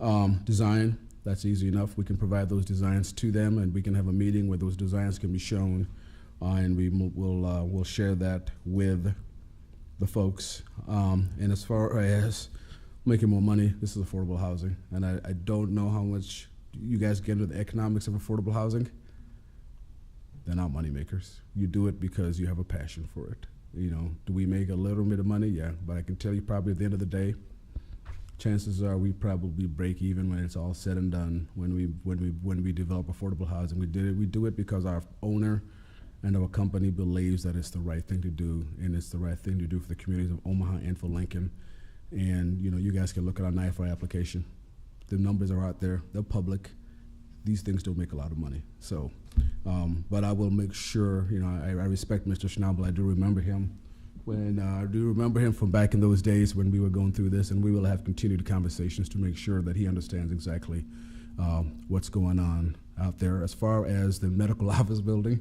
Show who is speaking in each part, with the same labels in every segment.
Speaker 1: Um, design, that's easy enough. We can provide those designs to them and we can have a meeting where those designs can be shown. Uh, and we mo- will, uh, we'll share that with the folks. Um, and as far as making more money, this is affordable housing. And I, I don't know how much you guys get into the economics of affordable housing. They're not moneymakers. You do it because you have a passion for it. You know, do we make a little bit of money? Yeah, but I can tell you probably at the end of the day, chances are we probably break even when it's all said and done. When we when we when we develop affordable housing, we did it. We do it because our owner and our company believes that it's the right thing to do, and it's the right thing to do for the communities of Omaha and for Lincoln. And you know, you guys can look at our NIFR application. The numbers are out there. They're public. These things don't make a lot of money. So, um, but I will make sure. You know, I, I respect Mr. Schnabel. I do remember him when uh, I do remember him from back in those days when we were going through this, and we will have continued conversations to make sure that he understands exactly um, what's going on out there. As far as the medical office building,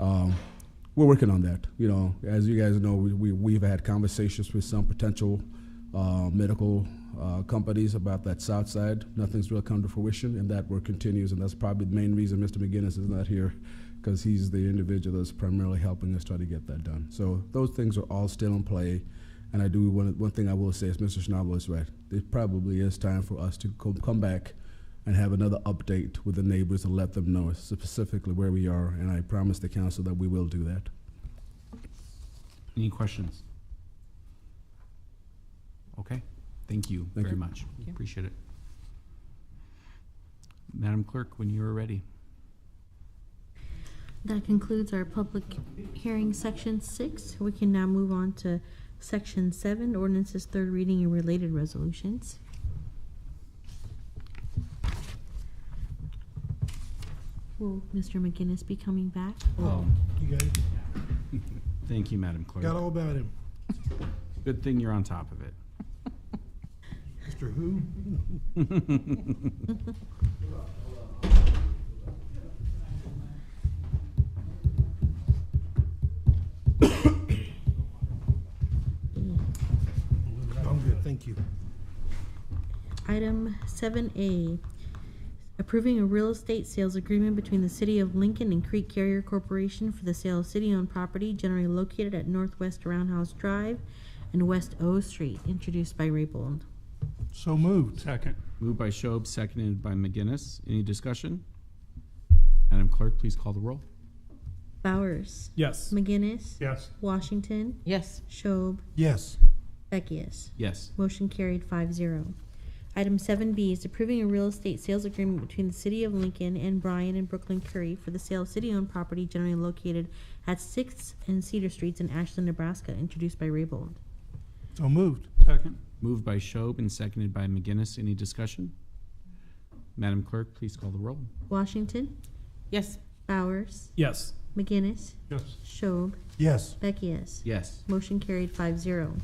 Speaker 1: um, we're working on that. You know, as you guys know, we, we, we've had conversations with some potential uh, medical uh, companies about that south side. Nothing's really come to fruition, and that work continues, and that's probably the main reason Mr. McGinnis is not here, because he's the individual that's primarily helping us try to get that done. So those things are all still in play, and I do, one, one thing I will say is Mr. Schnabel is right. It probably is time for us to co- come back and have another update with the neighbors and let them know specifically where we are, and I promise the council that we will do that.
Speaker 2: Any questions? Okay, thank you
Speaker 1: Thank
Speaker 2: very
Speaker 1: you.
Speaker 2: much.
Speaker 3: Thank you.
Speaker 2: Appreciate it. Madam Clerk, when you are ready.
Speaker 4: That concludes our public hearing section six. We can now move on to section seven, ordinances, third reading and related resolutions. Will Mr. McGinnis be coming back?
Speaker 2: Oh,
Speaker 5: You guys
Speaker 2: Thank you, Madam Clerk.
Speaker 5: got all about him.
Speaker 2: Good thing you're on top of it.
Speaker 5: Mr. Who? I'm good, thank you.
Speaker 4: Item seven A, approving a real estate sales agreement between the City of Lincoln and Creek Carrier Corporation for the sale of city-owned property generally located at Northwest Roundhouse Drive and West O Street, introduced by Raybold.
Speaker 5: So moved.
Speaker 6: Second.
Speaker 2: Moved by Schob, seconded by McGinnis. Any discussion? Madam Clerk, please call the roll.
Speaker 4: Bowers.
Speaker 6: Yes.
Speaker 4: McGinnis.
Speaker 6: Yes.
Speaker 4: Washington.
Speaker 3: Yes.
Speaker 4: Schob.
Speaker 5: Yes,
Speaker 4: Beckius.
Speaker 2: Yes.
Speaker 4: Motion carried five zero. Item seven B is approving a real estate sales agreement between the City of Lincoln and Bryan and Brooklyn Curry for the sale of city-owned property generally located at Sixth and Cedar Streets in Ashland, Nebraska, introduced by Raybold.
Speaker 5: so moved.
Speaker 6: Second.
Speaker 2: Moved by Schob and seconded by McGinnis. Any discussion? Madam Clerk, please call the roll.
Speaker 4: Washington.
Speaker 3: Yes.
Speaker 4: Bowers.
Speaker 6: Yes.
Speaker 4: McGinnis.
Speaker 6: Yes.
Speaker 4: Schob.
Speaker 5: Yes,
Speaker 4: Beckius.
Speaker 2: Yes.
Speaker 4: Motion carried 5-0.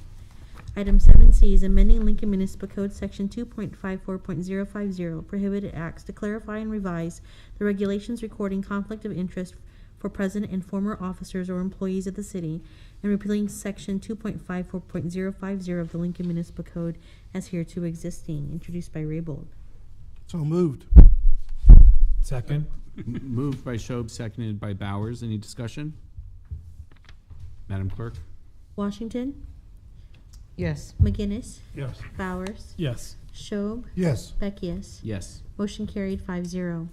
Speaker 4: Item seven C is amending Lincoln Municipal Code Section two point five four point zero five zero prohibited acts to clarify and revise the regulations recording conflict of interest for present and former officers or employees of the city and repealing Section two point five four point zero five zero of the Lincoln Municipal Code as hereto existing, introduced by Raybold.
Speaker 5: so moved.
Speaker 6: Second.
Speaker 2: M- Moved by Schob, seconded by Bowers. Any discussion? Madam Clerk?
Speaker 4: Washington,
Speaker 3: Yes.
Speaker 4: McGinnis,
Speaker 6: Yes.
Speaker 4: Bowers,
Speaker 6: Yes.
Speaker 4: Schob,
Speaker 5: Yes,
Speaker 4: Beckius.
Speaker 2: Yes.
Speaker 4: Motion carried five zero.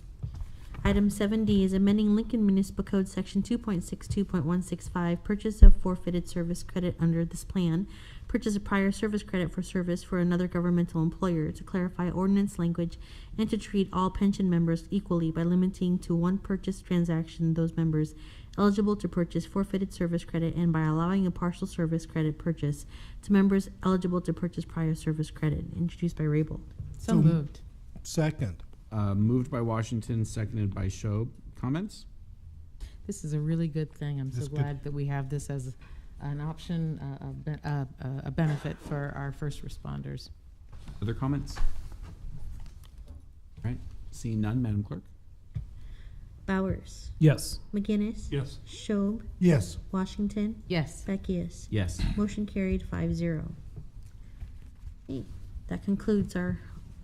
Speaker 4: Item seven D is amending Lincoln Municipal Code Section two point six two point one six five, purchase of forfeited service credit under this plan. Purchase of prior service credit for service for another governmental employer to clarify ordinance language and to treat all pension members equally by limiting to one purchase transaction those members eligible to purchase forfeited service credit and by allowing a partial service credit purchase to members eligible to purchase prior service credit, introduced by Raybold.
Speaker 3: So moved.
Speaker 5: second.
Speaker 2: Uh, moved by Washington, seconded by Schob. Comments?
Speaker 3: This is a really good thing. I'm so
Speaker 5: That's good.
Speaker 3: glad that we have this as an option, uh, a ben- uh, uh, a benefit for our first responders.
Speaker 2: Other comments? All right. Seeing none, Madam Clerk?
Speaker 4: Bowers.
Speaker 6: Yes.
Speaker 4: McGinnis.
Speaker 6: Yes.
Speaker 4: Schob,
Speaker 5: Yes,
Speaker 4: Washington,
Speaker 3: Yes.
Speaker 4: Beckius.
Speaker 2: Yes.
Speaker 4: Motion carried five zero. That concludes our